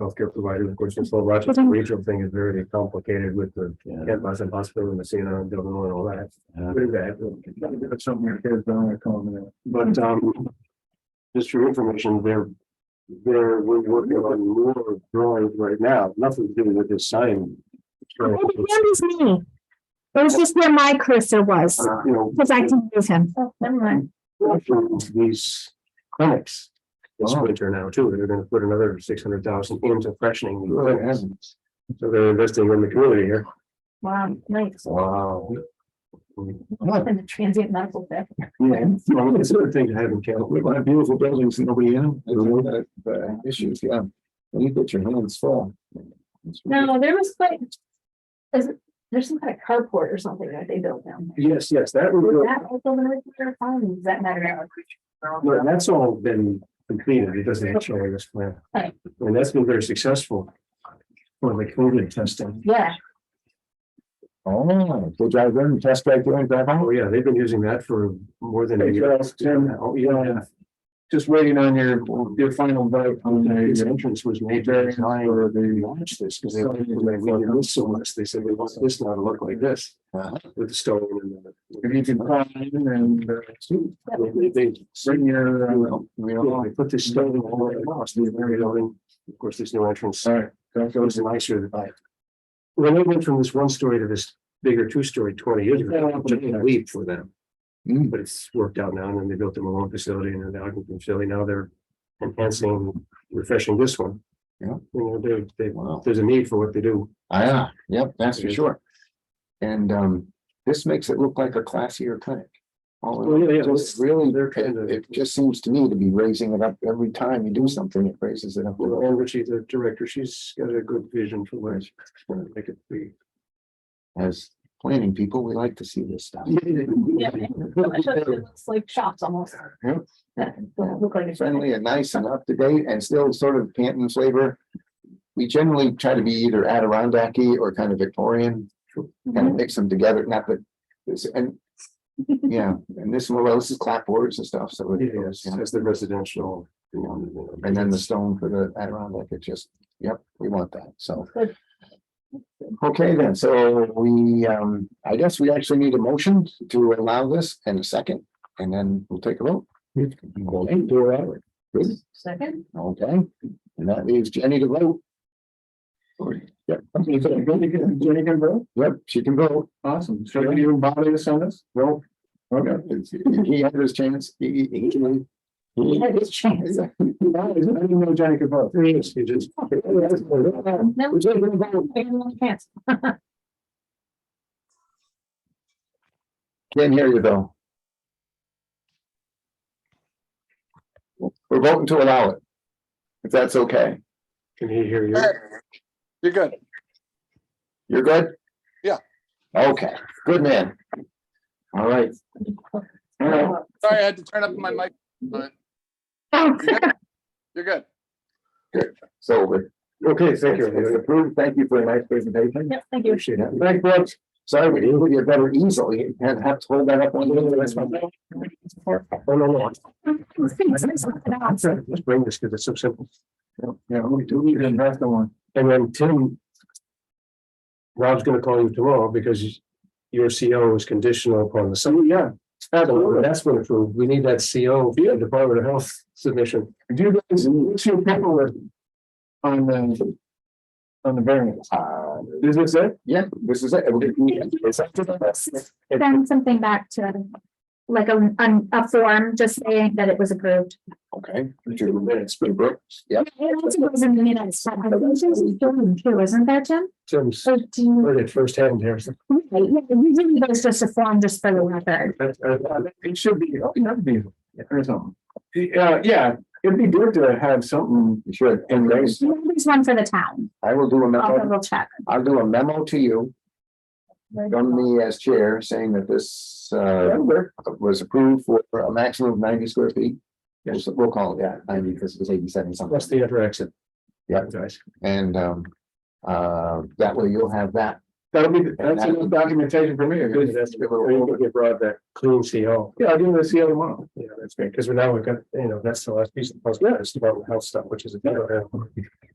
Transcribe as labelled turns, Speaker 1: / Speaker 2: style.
Speaker 1: healthcare providers, of course, this whole Rochester regional thing is very complicated with the Kent Boston Hospital and Messina and Dublin and all that.
Speaker 2: Yeah.
Speaker 1: Pretty bad. That's something your kids don't want to call them. But um, just for your information, they're, they're, we're working on more drawings right now, nothing to do with this sign. So,
Speaker 3: Maybe Andy's me. It was just where my cursor was,
Speaker 1: uh, You know.
Speaker 3: because I can move him.
Speaker 4: Oh, Never mind.
Speaker 1: these clinics this
Speaker 2: Oh.
Speaker 1: winter now too. They're gonna put another six hundred thousand into freshening. these
Speaker 2: Good
Speaker 1: clinics.
Speaker 2: heavens.
Speaker 1: So they're investing in the community here.
Speaker 4: Wow, nice.
Speaker 2: Wow.
Speaker 1: Mm-hmm.
Speaker 4: And the transient medical bed.
Speaker 1: Yeah, well, it's a good thing to have in Canada.
Speaker 2: We have beautiful buildings and nobody in them. I don't know that, uh, Issues, yeah. When you get your hands full. it's really-
Speaker 4: No, there was like. Is it, there's some kind of carport or something that they built down there.
Speaker 1: Yes, yes, that would,
Speaker 4: Was
Speaker 1: go-
Speaker 4: that also in the nuclear farm? Does that matter?
Speaker 1: no, that's all been completed because they had showing this plan.
Speaker 4: Right.
Speaker 1: And that's been very successful. For the COVID testing.
Speaker 4: Yeah,
Speaker 2: Oh, they drive in, test back there and drive
Speaker 1: Oh,
Speaker 2: out.
Speaker 1: yeah, they've been using that for more than a year. Oh, yeah.
Speaker 2: Just waiting on your, your final vote on
Speaker 1: His entrance was made very high or they launched this because they
Speaker 2: Sorry,
Speaker 1: wanted to
Speaker 2: I
Speaker 1: make
Speaker 2: thought it
Speaker 1: this so much. They said we want this now to look like this
Speaker 2: Uh-huh.
Speaker 1: with the stone and the.
Speaker 2: If you can find and. uh, see,
Speaker 1: They- They
Speaker 2: Bring your. uh,
Speaker 1: Well,
Speaker 2: We
Speaker 1: you know, they put this stone all over the house, the very building. Of course, there's no entrance.
Speaker 2: Sorry. Don't
Speaker 1: So
Speaker 2: go
Speaker 1: it's
Speaker 2: to.
Speaker 1: nicer. than- When they went from this one story to this bigger two story twenty years ago, it took a leap for them,
Speaker 2: Mm,
Speaker 1: but it's worked out now. And then they built the Malone facility and then the Ogden facility. Now they're enhancing, refreshing this one.
Speaker 2: Yeah.
Speaker 1: You know, they, they,
Speaker 2: Wow.
Speaker 1: there's a need for what they do.
Speaker 2: Ah, yep, that's for sure. And um, this makes it look like a classier clinic. All in
Speaker 1: Well, yeah, yeah,
Speaker 2: all,
Speaker 1: it's-
Speaker 2: It's really,
Speaker 1: they're kind of-
Speaker 2: it it just seems to me to be raising it up every time you do something, it raises it up. a
Speaker 1: Well,
Speaker 2: little.
Speaker 1: Anne Ritchie, the director, she's got a good vision for where it's going to make it be.
Speaker 2: As planning people, we like to see this stuff.
Speaker 4: yeah. It looks like shops almost.
Speaker 2: Yeah.
Speaker 4: That don't look like. a-
Speaker 2: Friendly and nice and up to date and still sort of Canton flavor. We generally try to be either Adirondacky or kind of Victorian, kind of
Speaker 4: Mhm.
Speaker 2: mix them together, not that. this- And, yeah, and this, well, this is clapboards and stuff, so. it goes,
Speaker 1: Yes,
Speaker 2: yeah.
Speaker 1: as the residential. you know,
Speaker 2: And then the stone for the Adirondack, it just, yep, we want that, so.
Speaker 4: Good.
Speaker 2: Okay, then, so we, um, I guess we actually need a motion to allow this and a second, and then we'll take a vote. Okay, do it right. Good,
Speaker 4: Second,
Speaker 2: okay, and that leaves Jenny to vote. Yep. Jenny can vote? Yep, she can vote. Awesome. Should we even bother to send us? No. Okay. He had his chance, he, he, he.
Speaker 4: he
Speaker 2: he-
Speaker 4: had his chance.
Speaker 2: yeah, I didn't know Johnny could vote.
Speaker 1: Yes, you just.
Speaker 4: No.
Speaker 2: Which ain't gonna vote.
Speaker 4: He had no chance.
Speaker 2: Can't hear you though. We're voting to allow it. If that's okay.
Speaker 1: Can he hear you?
Speaker 5: You're good.
Speaker 2: You're good?
Speaker 5: Yeah.
Speaker 2: Okay, good man. All right. All right.
Speaker 5: Sorry, I had to turn up my mic.
Speaker 3: Oh,
Speaker 5: You're good.
Speaker 2: So, but- okay, thank you. It's approved. Thank you for a nice presentation.
Speaker 4: Yep, thank you.
Speaker 2: Appreciate it. Thank you. Sorry, we didn't get you a better easel. You had have to hold that up one day. That's my-
Speaker 1: Oh, no, no.
Speaker 3: It's
Speaker 1: Let's bring this because it's so simple.
Speaker 2: Yeah, we do. We didn't have the one.
Speaker 1: And then Tim. Rob's gonna call you tomorrow because your CO is conditional upon the.
Speaker 2: So, yeah.
Speaker 1: Absolutely. That's what approved. We need that CO, for the Department of Health submission.
Speaker 2: Do you guys, what's your paperwork? On the. On the variance? Uh, is this it? Yeah, this is it.
Speaker 3: Send something back to, like, a, an- a form, just saying that it was approved.
Speaker 2: Okay. Yeah.
Speaker 3: It also goes in the minutes, but I think there's a form too, isn't there, Jim?
Speaker 1: Tim's
Speaker 3: Or do you,
Speaker 1: heard it firsthand here. so
Speaker 3: right, yeah, usually there's just a form just for the record.
Speaker 2: That's, uh, It should be, oh, that'd be, or something. Yeah, yeah, it'd be good to have something. Sure. And raise-
Speaker 3: There's one for the town.
Speaker 2: I will do a
Speaker 3: I'll
Speaker 2: memo,
Speaker 3: double check.
Speaker 2: I'll do a memo to you from me as chair saying that this, uh, was approved for a maximum of ninety square feet. Yes, we'll call it, yeah, ninety, because it's eighty-seven something.
Speaker 1: That's the other exit.
Speaker 2: Yeah.
Speaker 1: Guys.
Speaker 2: And um, uh, that way you'll have that.
Speaker 1: That'll be,
Speaker 2: that's enough documentation
Speaker 1: for me. Good, that's a good one. Or you get brought that clean CO.
Speaker 2: Yeah, I'll give them the CO tomorrow.
Speaker 1: Yeah, that's great, because now we've got, you know, that's the last piece of the puzzle, yeah, it's about health stuff, which is. a